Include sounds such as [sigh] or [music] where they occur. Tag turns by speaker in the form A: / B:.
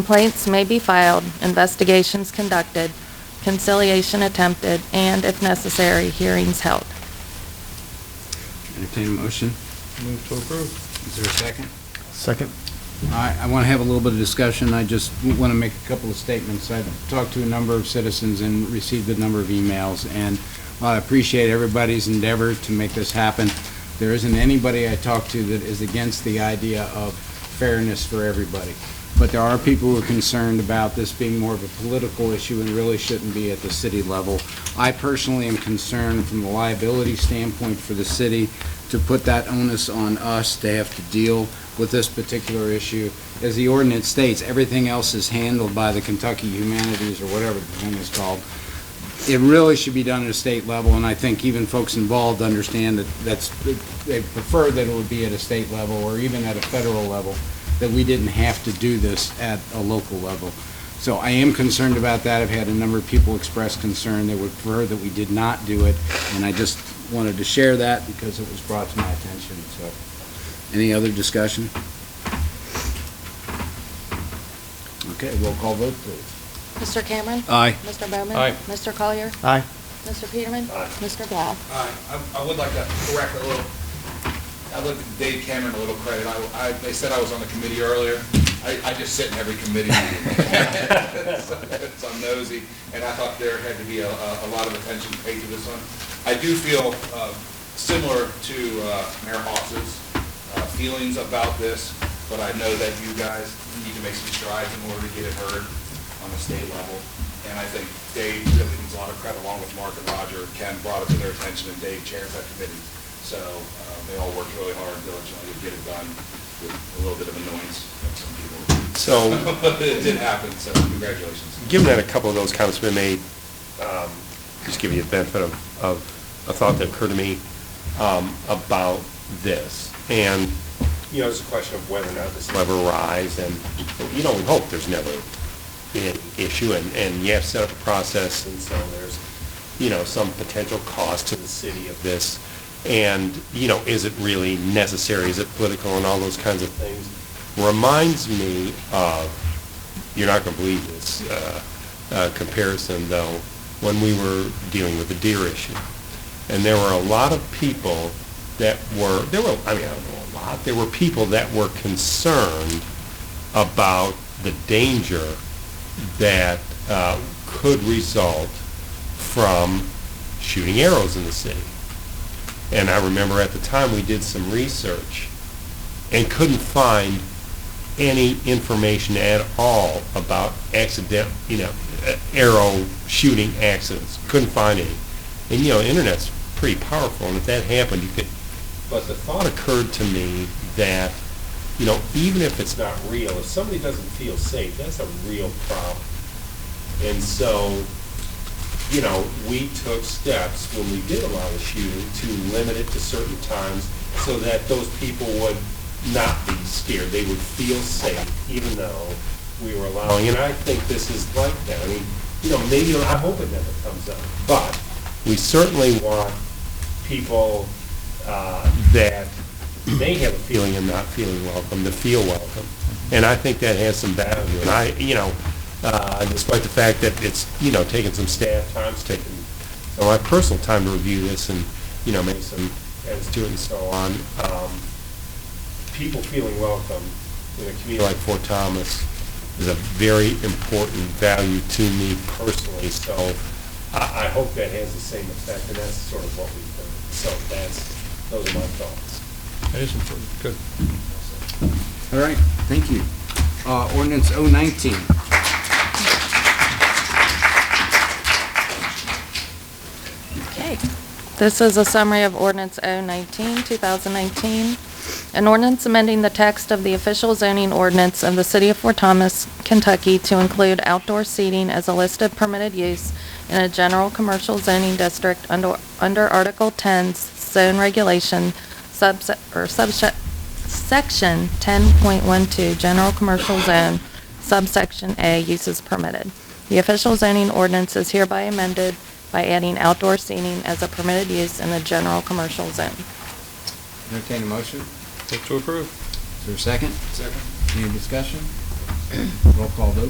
A: Complaints may be filed, investigations conducted, conciliation attempted, and if necessary, hearings held.
B: Entertain a motion.
C: Move to approve.
B: Is there a second?
D: Second.
B: I, I want to have a little bit of discussion. I just want to make a couple of statements. I've talked to a number of citizens and received a number of emails, and while I appreciate everybody's endeavor to make this happen, there isn't anybody I talk to that is against the idea of fairness for everybody. But there are people who are concerned about this being more of a political issue and really shouldn't be at the city level. I personally am concerned from the liability standpoint for the city to put that onus on us to have to deal with this particular issue. As the ordinance states, everything else is handled by the Kentucky Humanities or whatever the thing is called. It really should be done at a state level, and I think even folks involved understand that that's, they prefer that it would be at a state level or even at a federal level, that we didn't have to do this at a local level. So I am concerned about that. I've had a number of people express concern. They would prefer that we did not do it, and I just wanted to share that because it was brought to my attention, so. Any other discussion? Okay, roll call vote, please.
A: Mr. Cameron.
B: Aye.
A: Mr. Bowman.
C: Aye.
A: Mr. Collier.
D: Aye.
A: Mr. Peterman. Mr. Blau.
E: Aye. I, I would like to correct a little, I'd like to give Dave Cameron a little credit. I, I, they said I was on the committee earlier. I, I just sit in every committee meeting. [laughs] So I'm nosy, and I thought there had to be a, a a lot of attention paid to this one. I do feel, uh, similar to, uh, Mayor Hoss's, uh, feelings about this, but I know that you guys need to make some strides in order to get it heard on the state level. And I think Dave really needs a lot of credit, along with Mark and Roger. Ken brought it to their attention, and Dave chairs that committee. So uh, they all worked really hard and diligently to get it done with a little bit of annoyance from some people.
C: So,
E: But [laughs] it did happen, so congratulations.
C: given that a couple of those comments have been made, um, just give you the benefit of, of a thought that occurred to me um, about this. And, you know, it's a question of whether or not this will ever rise, and, you know, we hope there's never an issue, and, and you have set up a process, and so there's, you know, some potential cost to the city of this. And, you know, is it really necessary? Is it political and all those kinds of things? Reminds me of you're not going to believe this uh, uh, comparison, though, when we were dealing with the deer issue. And there were a lot of people that were, there were, I mean, I don't know a lot, there were people that were concerned about the danger that uh, could result from shooting arrows in the city. And I remember at the time, we did some research and couldn't find any information at all about accident, you know, uh, arrow shooting accidents. Couldn't find any. And, you know, internet's pretty powerful, and if that happened, you could. But the thought occurred to me that, you know, even if it's not real, if somebody doesn't feel safe, that's a real problem. And so, you know, we took steps when we did allow the shooting to limit it to certain times so that those people would not be scared. They would feel safe even though we were allowing. And I think this is like that. I mean, you know, maybe, I hope it never comes up, but we certainly want people uh, that may have a feeling of not feeling welcome to feel welcome. And I think that has some value. And I, you know, uh, despite the fact that it's, you know, taken some staff time, it's taken so my personal time to review this and, you know, make some edits to it and so on. Um, people feeling welcome in a community like Fort Thomas is a very important value to me personally. So I, I hope that has the same effect, and that's sort of what we've done. So that's, those are my thoughts.
D: That is important. Good.
B: All right, thank you. Uh, ordinance oh nineteen.
A: Okay. This is a summary of ordinance O-19, 2019. An ordinance amending the text of the official zoning ordinance of the city of Fort Thomas, Kentucky to include outdoor seating as a listed permitted use in a general commercial zoning district under, under Article 10's zone regulation subset, or subset, section 10.12, general commercial zone, subsection A, uses permitted. The official zoning ordinance is hereby amended by adding outdoor seating as a permitted use in the general commercial zone.
B: Entertain a motion.
C: Move to approve.
B: Is there a second? Second. Any discussion? Roll call vote.